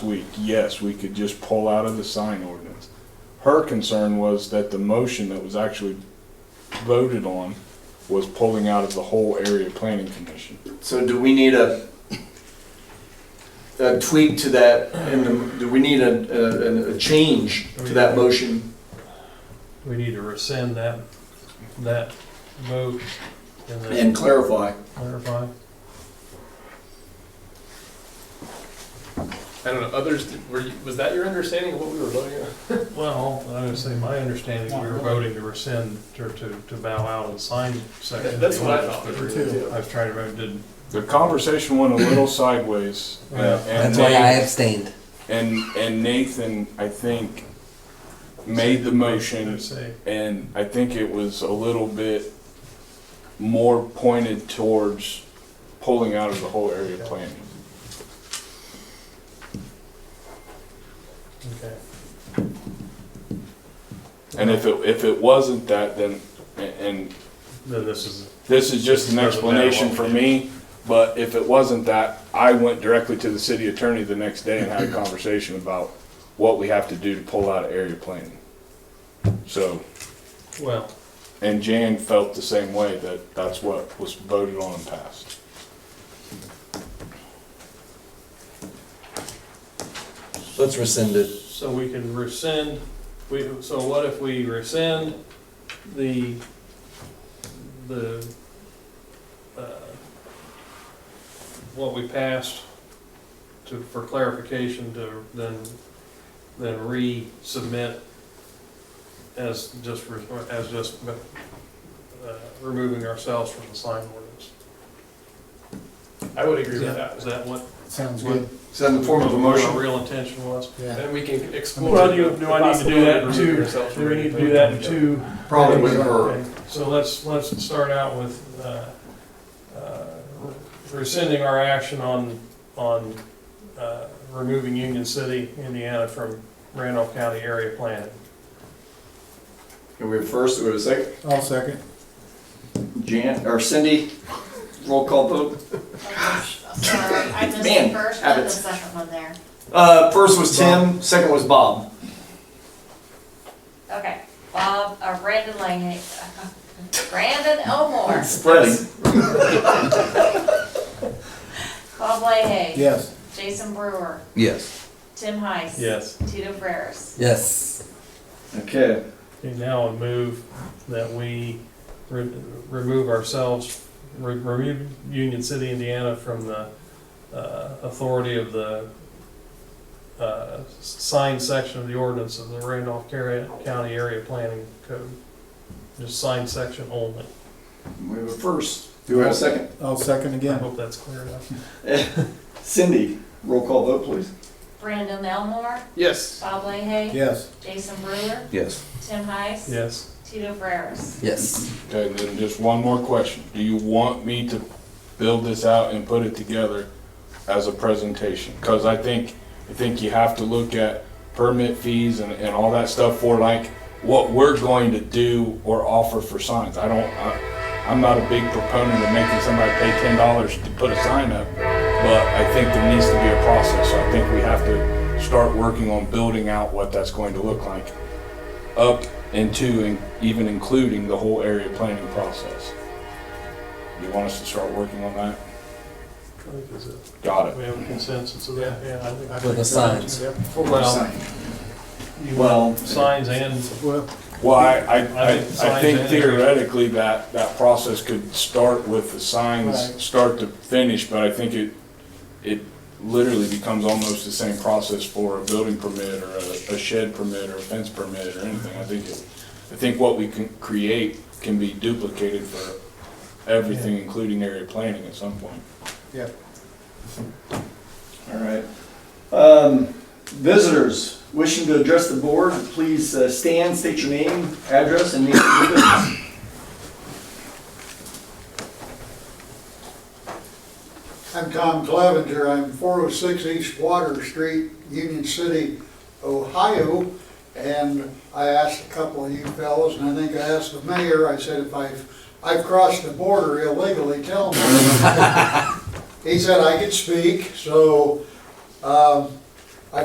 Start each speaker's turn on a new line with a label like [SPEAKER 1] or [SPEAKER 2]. [SPEAKER 1] week, yes, we could just pull out of the sign ordinance. Her concern was that the motion that was actually voted on was pulling out of the whole area planning commission.
[SPEAKER 2] So do we need a, a tweak to that, and do we need a, a, a change to that motion?
[SPEAKER 3] We need to rescind that, that vote and then
[SPEAKER 2] And clarify.
[SPEAKER 3] clarify.
[SPEAKER 4] I don't know, others, were, you- was that your understanding of what we were voting on?
[SPEAKER 3] Well, I would say my understanding, we were voting to rescind or to, to bow out of the sign section.
[SPEAKER 4] That's what I thought.
[SPEAKER 3] I was trying to remember, did,
[SPEAKER 1] The conversation went a little sideways. and- and
[SPEAKER 5] That's why I
[SPEAKER 1] Nate-
[SPEAKER 5] abstained.
[SPEAKER 1] And, and Nathan, I think, made the
[SPEAKER 3] did
[SPEAKER 1] motion
[SPEAKER 3] it say?
[SPEAKER 1] and I think it was a little bit more pointed towards pulling out of the whole area planning.
[SPEAKER 3] Okay.
[SPEAKER 1] And if it, if it wasn't that, then, and
[SPEAKER 3] Then this is,
[SPEAKER 1] this is just an explanation for me, but if it wasn't that, I went directly to the city attorney the next day and had a conversation about what we have to do to pull out of area planning. So,
[SPEAKER 3] well,
[SPEAKER 1] and Jan felt the same way, that that's what was voted on and passed.
[SPEAKER 5] Let's rescind it.
[SPEAKER 3] so we can rescind, we, so what if we rescind the, the, uh, what we passed to, for clarification to then, then resubmit as just, re- as just, uh, removing ourselves from the sign ordinance?
[SPEAKER 4] I would agree
[SPEAKER 3] Is
[SPEAKER 4] with
[SPEAKER 3] that,
[SPEAKER 4] that.
[SPEAKER 3] is that what?
[SPEAKER 6] Sounds
[SPEAKER 3] good.
[SPEAKER 6] good.
[SPEAKER 2] Is that in the form of a
[SPEAKER 3] Our
[SPEAKER 2] motion?
[SPEAKER 3] real intention was?
[SPEAKER 6] Yeah.
[SPEAKER 4] Then we can explore.
[SPEAKER 3] Well, do you- do I need to do that
[SPEAKER 4] the possibility of
[SPEAKER 3] too?
[SPEAKER 4] yourself
[SPEAKER 3] Do we need to
[SPEAKER 4] removing
[SPEAKER 3] do that in
[SPEAKER 4] things.
[SPEAKER 3] two?
[SPEAKER 2] Probably with her.
[SPEAKER 3] Okay, So let's, let's start out with, uh, uh, rescinding our action on, on, uh, removing Union City, Indiana from Randolph County area plan.
[SPEAKER 2] Can we have first, do we have a second?
[SPEAKER 6] I'll second.
[SPEAKER 2] Jan, or Cindy, roll call vote.
[SPEAKER 7] Sorry, I missed
[SPEAKER 2] Man,
[SPEAKER 7] the first and the
[SPEAKER 2] habits.
[SPEAKER 7] second one there.
[SPEAKER 2] Uh, first was Tim, second was Bob.
[SPEAKER 7] Okay, Bob, uh, Brandon Langley, Brandon Elmore,
[SPEAKER 2] Spreading.
[SPEAKER 7] Bob Leahy.
[SPEAKER 6] Yes.
[SPEAKER 7] Jason Brewer,
[SPEAKER 5] Yes.
[SPEAKER 7] Tim Heiss.
[SPEAKER 3] Yes.
[SPEAKER 7] Tito Brares.
[SPEAKER 5] Yes.
[SPEAKER 2] Okay,
[SPEAKER 3] Okay, now I move that we re- remove ourselves, re- remove Union City, Indiana from the uh, authority of the uh, sign section of the ordinance of the Randolph Car- County Area Planning Code. Just sign section only.
[SPEAKER 2] we have a first. Do we have a second?
[SPEAKER 6] I'll second
[SPEAKER 3] I
[SPEAKER 6] again.
[SPEAKER 3] hope that's clear enough.
[SPEAKER 2] Cindy, roll call vote, please.
[SPEAKER 7] Brandon Elmore,
[SPEAKER 4] Yes,
[SPEAKER 7] Bob Leahy.
[SPEAKER 6] Yes.
[SPEAKER 7] Jason Brewer,
[SPEAKER 5] Yes.
[SPEAKER 7] Tim Heiss.
[SPEAKER 3] Yes,
[SPEAKER 7] Tito Brares.
[SPEAKER 5] Yes.
[SPEAKER 1] Okay, and then just one more question. Do you want me to build this out and put it together as a presentation? Because I think, I think you have to look at permit fees and, and all that stuff for like what we're going to do or offer for signs. I don't, I, I'm not a big proponent of making somebody pay ten dollars to put a sign up, but I think there needs to be a process. So I think we have to start working on building out what that's going to look like up into and even including the whole area planning process. You want us to start working on that?
[SPEAKER 3] I think is it.
[SPEAKER 1] Got it.
[SPEAKER 3] We have a consensus of that, yeah. I think-
[SPEAKER 5] With the signs.
[SPEAKER 3] Well, you want
[SPEAKER 2] Well,
[SPEAKER 3] signs and,
[SPEAKER 6] Well,
[SPEAKER 1] Well, I, I, I
[SPEAKER 3] think signs
[SPEAKER 1] I think
[SPEAKER 3] and-
[SPEAKER 1] theoretically that, that process could start with the signs,
[SPEAKER 6] Right.
[SPEAKER 1] start to finish, but I think it, it literally becomes almost the same process for a building permit or a, a shed permit or a fence permit or anything. I think it, I think what we can create can be duplicated for everything, including area planning at some point.
[SPEAKER 6] yeah.
[SPEAKER 2] all right. Um, visitors wishing to address the board, please uh, stand, state your name, address, and name of your business.
[SPEAKER 8] I'm Tom Clevenger. I'm 406 East Water Street, Union City, Ohio. And I asked a couple of you fellows, and I think I asked the mayor, I said, if I've, I've crossed the border illegally, tell me. He said I could speak, so, um,